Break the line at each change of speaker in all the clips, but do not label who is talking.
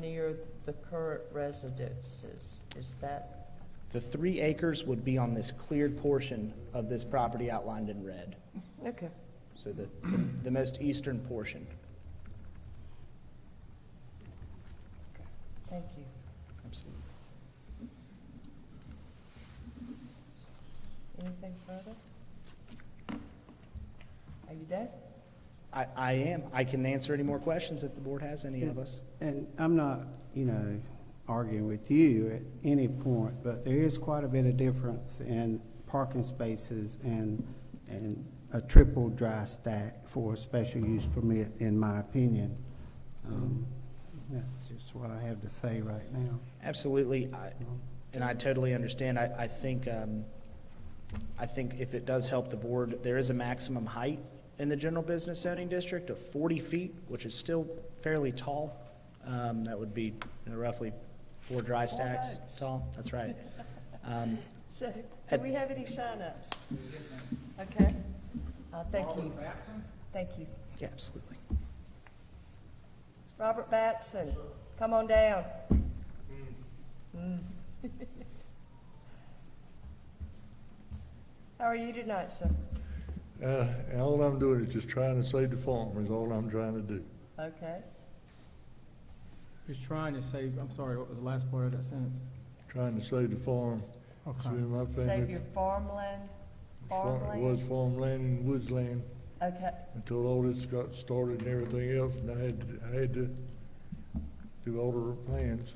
near the current residences? Is that,
The three acres would be on this cleared portion of this property outlined in red,
okay.
so the, the most eastern portion.
Thank you.
Absolutely.
Anything further? Are you done?
I, I am, I can answer any more questions if the board has any of us.
And I'm not, you know, arguing with you at any point, but there is quite a bit of difference in parking spaces and, and a triple dry stack for a special use permit, in my opinion. Um, That's just what I have to say right now.
Absolutely, I, and I totally understand. I, I think, um, I think if it does help the board, there is a maximum height in the general business zoning district of forty feet, which is still fairly tall. Um, that would be you know, roughly four dry stacks
nice.
tall, that's right. Um,
So, do
At-
we have any signups? Okay. Uh, thank you. Thank you.
yeah, absolutely.
Robert Batson, come on down. Mm. How are you tonight, sir?
Uh, and all I'm doing is just trying to save the farm is all I'm trying to do.
Okay.
Who's trying to save, I'm sorry, what was the last part of that sentence?
Trying to save the farm. It's been my
Save
thing.
your farmland,
Far- It was
farmland?
farmland and woodsland
Okay,
until all this got started and everything else. And I had, I had to do all the plans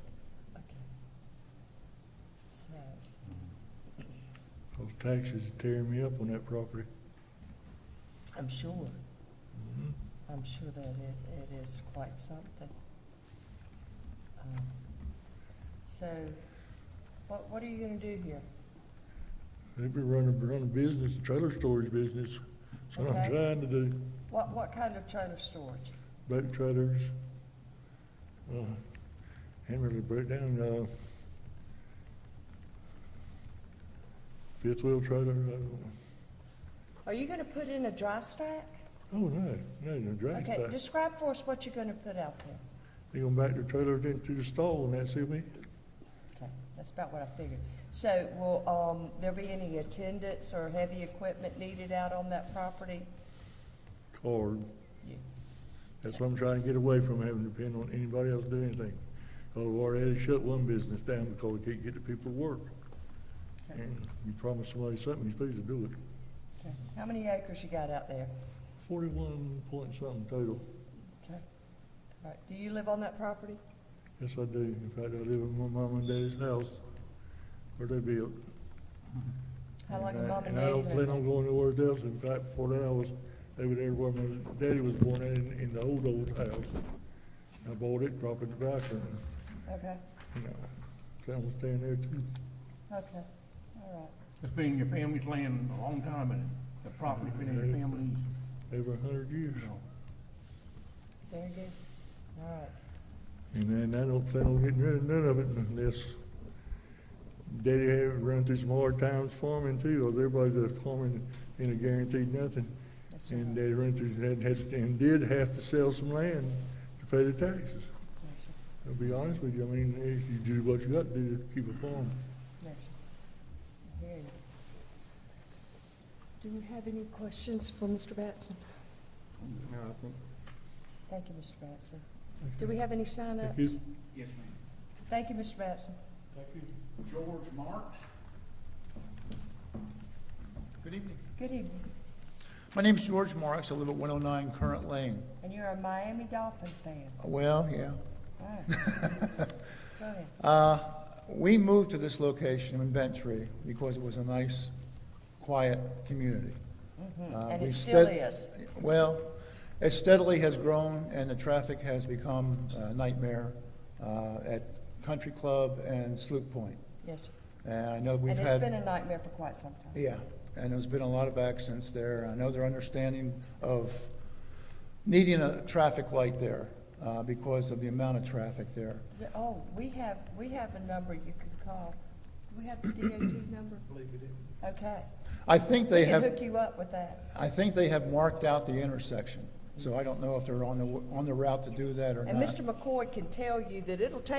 okay. So,
because taxes are tearing me up on that property.
I'm sure. I'm sure that it, it is quite something. Um, So, what, what are you gonna do here?
They've been running, running business, trailer storage business. That's what
Okay.
I'm trying to do.
What, what kind of trailer storage?
boat trailers. Uh, and really broke down, uh, fifth wheel trailer, I don't know.
Are you gonna put in a dry stack?
Oh, no, no, no, drag
Okay,
back.
describe for us what you're gonna put out there.
They gonna back the trailer into the stall and that's it,
Okay, that's about what I figured. So, will, um, there be any attendants or heavy equipment needed out on that property?
card.
Yeah.
That's what I'm trying to get away from having to depend on anybody else to do anything. Oh, we already had to shut one business down because we can't get the people to work.
Okay.
And you promise somebody something, you're supposed to do it.
Okay. How many acres you got out there?
Forty-one point something total.
Okay. All right, do you live on that property?
Yes, I do. In fact, I live in my mom and daddy's house where they built.
How long
And
have
I-
mom and
I
dad
don't
lived
plan on
there?
going nowhere else. In fact, before that, I was, they were there where my daddy was born in, in the old, old house. I bought it, dropped it in the bathroom,
Okay,
and, uh, son was staying there too.
okay, all
It's been your family's land a long time, and the property's been in your family's,
Over a hundred years.
you know.
right, very good, all right.
And then I don't plan on getting rid of none of it unless daddy had run through some hard times farming too, or everybody's just farming and it guaranteed nothing.
Yes, sir.
And uh, they run through, and had, and did have to sell some land to pay the taxes.
Yes, sir.
I'll be honest with you, I mean, if you do what you got to do to keep it farm.
Yes. Very good. Do we have any questions for Mr. Batson?
No, I think
Thank you, Mr. Batson. Do we have any
Thank you.
sign-ups?
Yes, ma'am.
Thank you, Mr. Batson.
Thank you. George Marks.
Good evening.
Good evening.
My name's George Marks. I live at 109 Current Lane.
And you're a Miami Dolphin fan.
Well, yeah.
All right. Go ahead.
Uh, We moved to this location in Bentry because it was a nice, quiet community. Uh,
Mm-hmm. And
we
it still
stead-
is.
Well, it steadily has grown, and the traffic has become a nightmare uh, at Country Club and Sloop Point.
Yes, sir.
And I know we've
And
had...
it's been a nightmare for quite some time.
Yeah, and there's been a lot of accidents there. I know their understanding of needing a traffic light there uh, because of the amount of traffic there.
Oh, we have, we have a number you can call. Do we have the DOT number? Believe we do. Okay.
I think
We
they
can hook
have,
you up with that.
I think they have marked out the intersection So I don't know if they're on the, on the route to do that or not.
And Mr. McCoy can tell you that it'll take